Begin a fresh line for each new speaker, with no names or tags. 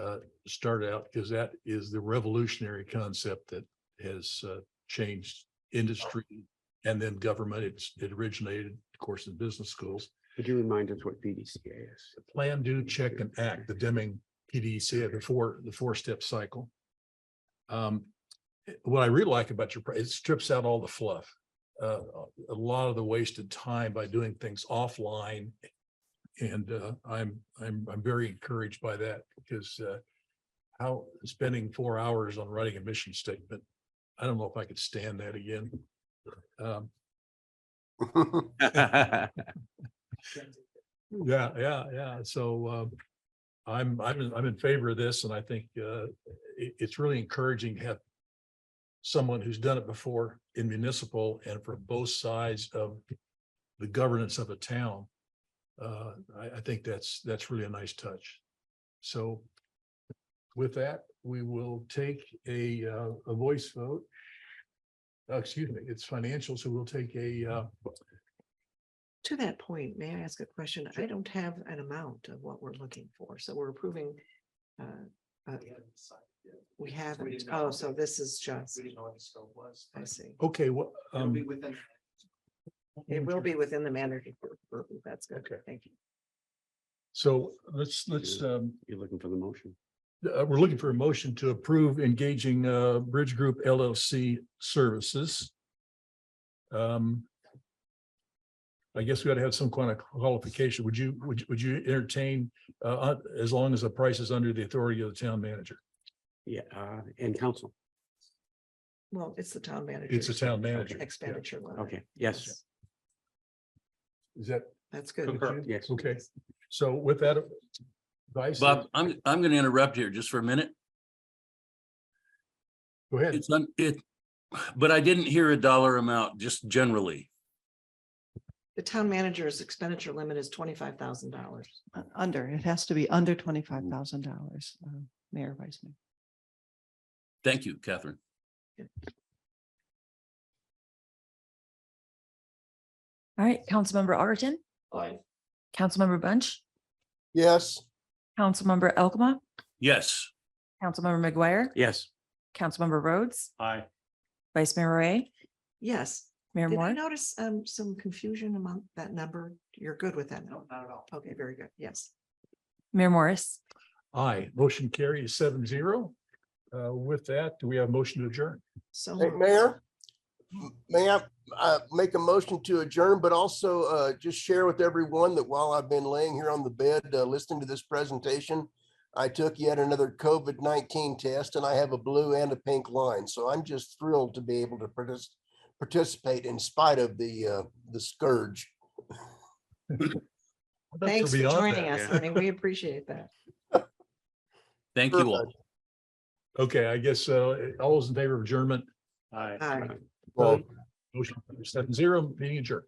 uh, start out because that is the revolutionary concept that has uh, changed industry and then government. It's, it originated, of course, in business schools.
Could you remind us what BDCA is?
Plan, do, check and act, the Deming PDCA, uh, the four, the four step cycle. Um, what I really like about your, pr- it strips out all the fluff. Uh, a lot of the wasted time by doing things offline. And uh, I'm, I'm, I'm very encouraged by that because uh, how spending four hours on writing a mission statement, I don't know if I could stand that again. Um, Yeah, yeah, yeah. So um, I'm, I'm, in- I'm in favor of this and I think uh, it, it's really encouraging to have someone who's done it before in municipal and for both sides of the governance of a town. Uh, I, I think that's, that's really a nice touch. So with that, we will take a, uh, a voice vote. Uh, Excuse me, it's financial, so we'll take a, uh,
To that point, may I ask a question? I don't have an amount of what we're looking for, so we're approving. uh, uh, We haven't,
didn't know.
oh, so this is just,
We didn't know what the scope was.
I
but
see.
okay, well.
It'll
um,
be within,
It will be within the mandatory. purview. That's good.
Okay.
Thank you.
So let's, let's, um,
You're looking for the motion.
uh, we're looking for a motion to approve engaging, uh, Bridge Group LLC services. Um. I guess we ought to have some kind of qualification. Would you, would, you- would you entertain, uh, uh, as long as the price is under the authority of the town manager?
Yeah, uh, and council.
Well, it's the town manager.
It's the town manager. yeah.
Expenditure limit.
Okay, yes,
Is that?
That's good.
okay?
yes.
Okay, so with that. advice,
Bob, I'm, I'm going to interrupt here just for a minute.
Go ahead.
It's, un- it, but I didn't hear a dollar amount, just generally.
The town manager's expenditure limit is twenty-five thousand dollars.
Uh, Under, it has to be under twenty-five thousand dollars, uh, Mayor Weisman.
Thank you, Catherine.
All right, Councilmember Arton,
aye,
Councilmember Bunch,
yes,
Councilmember Elkma,
Yes,
Councilmember McGuire,
Yes,
Councilmember Rhodes,
aye.
Vice Mayor Ray,
Yes.
Mayor
Did I
Moore.
notice um some confusion among that number? You're good with that?
No,
number?
not at all.
Okay, very good. Yes.
Mayor Morris.
Aye, motion carries seven zero. Uh, with that, do we have a motion to adjourn?
So.
Hey,
moved.
Mayor. m- May I uh, make a motion to adjourn, but also uh, just share with everyone that while I've been laying here on the bed, uh, listening to this presentation, I took yet another COVID-19 test and I have a blue and a pink line. So I'm just thrilled to be able to partic- participate in spite of the, uh, the scourge.
Well, that's
Thanks for
beyond
joining
that.
us, honey. We appreciate that.
thank you all.
Okay, I guess, uh, all those in favor of adjournment,
Aye.
Aye.
Well, motion seven zero, meeting adjourned.